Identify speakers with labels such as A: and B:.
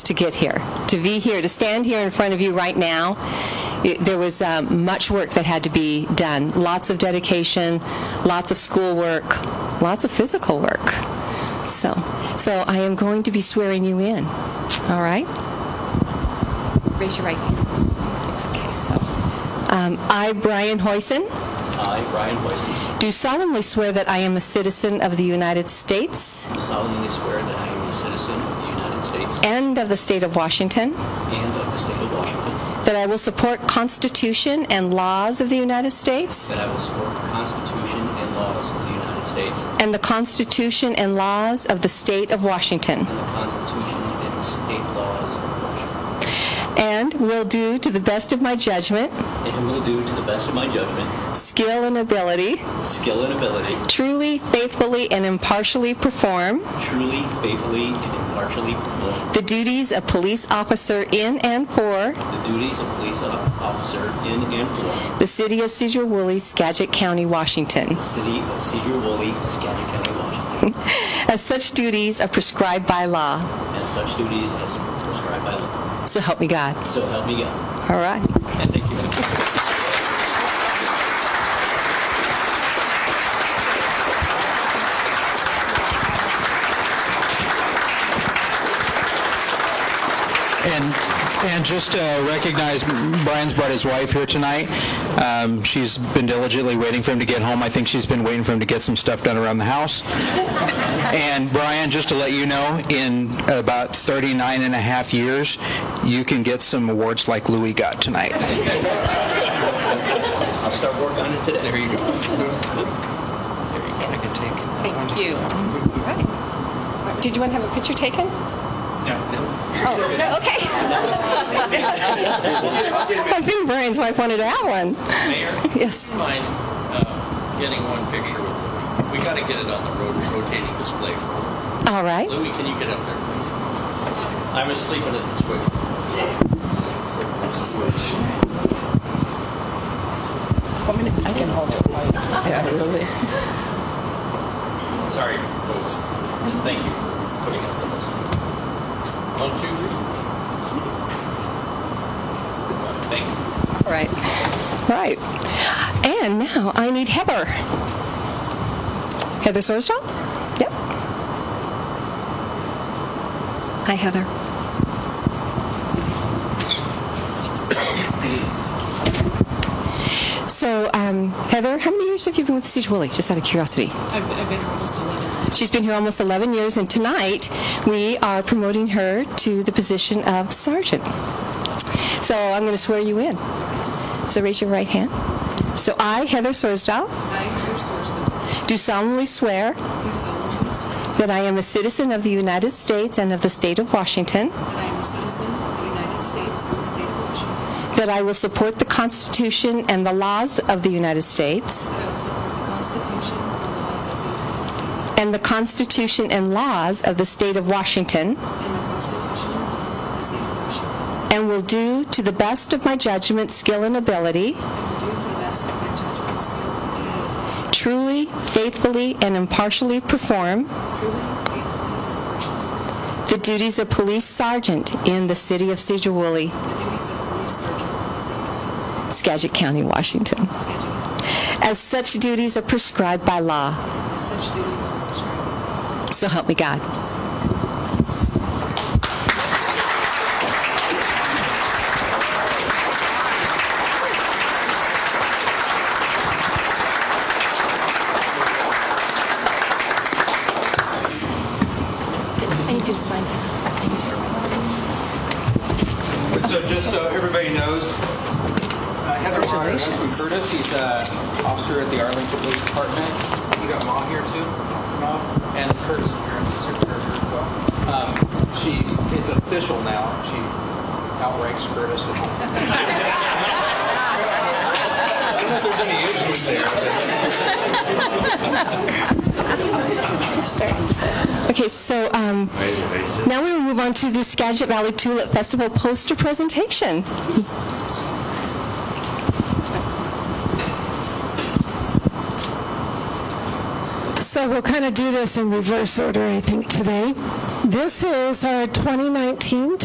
A: to get here, to be here, to stand here in front of you right now. It- There was um, much work that had to be done, lots of dedication, lots of schoolwork, lots of physical work. So, so I am going to be swearing you in, all right? Raise your right hand. It's okay, so. Um, I, Brian Hoysen,
B: I, Brian Hoiston,
A: do solemnly swear that I am a citizen of the United States
B: do solemnly swear that I am a citizen of the United States
A: and of the state of Washington,
B: and of the state of Washington,
A: that I will support Constitution and laws of the United States
B: that I will support the Constitution and laws of the United States
A: and the Constitution and laws of the state of Washington,
B: and the Constitution and state laws of Washington,
A: and will do to the best of my judgment,
B: and will do to the best of my judgment,
A: skill, and ability,
B: skill and ability,
A: truly, faithfully, and impartially perform
B: truly, faithfully, and impartially perform
A: the duties of police officer in and for
B: the duties of police officer in and for
A: the city of Cedar Woolley, Skagit County, Washington,
B: the city of Cedar Woolley, Skagit County, Washington,
A: as such duties are prescribed by law.
B: as such duties as prescribed by law.
A: So help me God.
B: So help me God.
A: All right.
B: And thank you.
C: And, and just uh, recognize Brian's brought his wife here tonight. Um, She's been diligently waiting for him to get home. I think she's been waiting for him to get some stuff done around the house. And Brian, just to let you know, in about 39 and a half years, you can get some awards like Louis got tonight.
B: I'll start work on it today. There you go.
A: Thank you. Right. Did you want to have a picture taken? Oh, okay. I think Brian's wife wanted that one.
D: Mayor?
A: Yes.
D: Do you mind uh, getting one picture with Louis? We got to get it on the road, rotating display.
A: All right.
D: Louis, can you get up there, please? I'm asleep in it this way.
E: I can hold it. Yeah, really.
D: Sorry, folks. Thank you for putting up with us. One, two, three. Thank you.
A: All right. All right. And now I need Heather. Heather Sorsdahl? Yep. Hi, Heather. So, um, Heather, how many years have you been with Siege Woolley? Just out of curiosity.
F: I've, I've been here almost 11.
A: She's been here almost 11 years, and tonight we are promoting her to the position of sergeant. So I'm going to swear you in. So raise your right hand. So I, Heather Sorsdahl,
F: I, Heather Sorsman,
A: do solemnly swear
F: do solemnly swear
A: that I am a citizen of the United States and of the state of Washington,
F: that I am a citizen of the United States and the state of Washington,
A: that I will support the Constitution and the laws of the United States,
F: that I will support the Constitution and the laws of the United States,
A: and the Constitution and laws of the state of Washington,
F: and the Constitution and laws of the state of Washington,
A: and will do to the best of my judgment, skill, and ability.
F: and will do to the best of my judgment, skill, and ability,
A: truly, faithfully, and impartially perform
F: truly, faithfully, and impartially,
A: the duties of police sergeant in the city of Cedar Woolley,
F: the duties of police sergeant of the city of
A: Skagit County, Washington,
F: Skagit,
A: as such duties are prescribed by law.
F: as such duties are prescribed by law.
A: So help me God. I need you to sign. I need you to sign.
G: So just so everybody knows, uh, Heather Maher, that's with Curtis, he's an officer at the Arlington Police Department. You got Ma here too, Ma, and Curtis' parents is here as well. Um, She, it's official now, she outranks Curtis. I don't know if there's any issues there.
A: Okay, so um, now we will move on to the Skagit Valley Tulip Festival poster presentation.
H: So we'll kind of do this in reverse order, I think, today. This is our 2019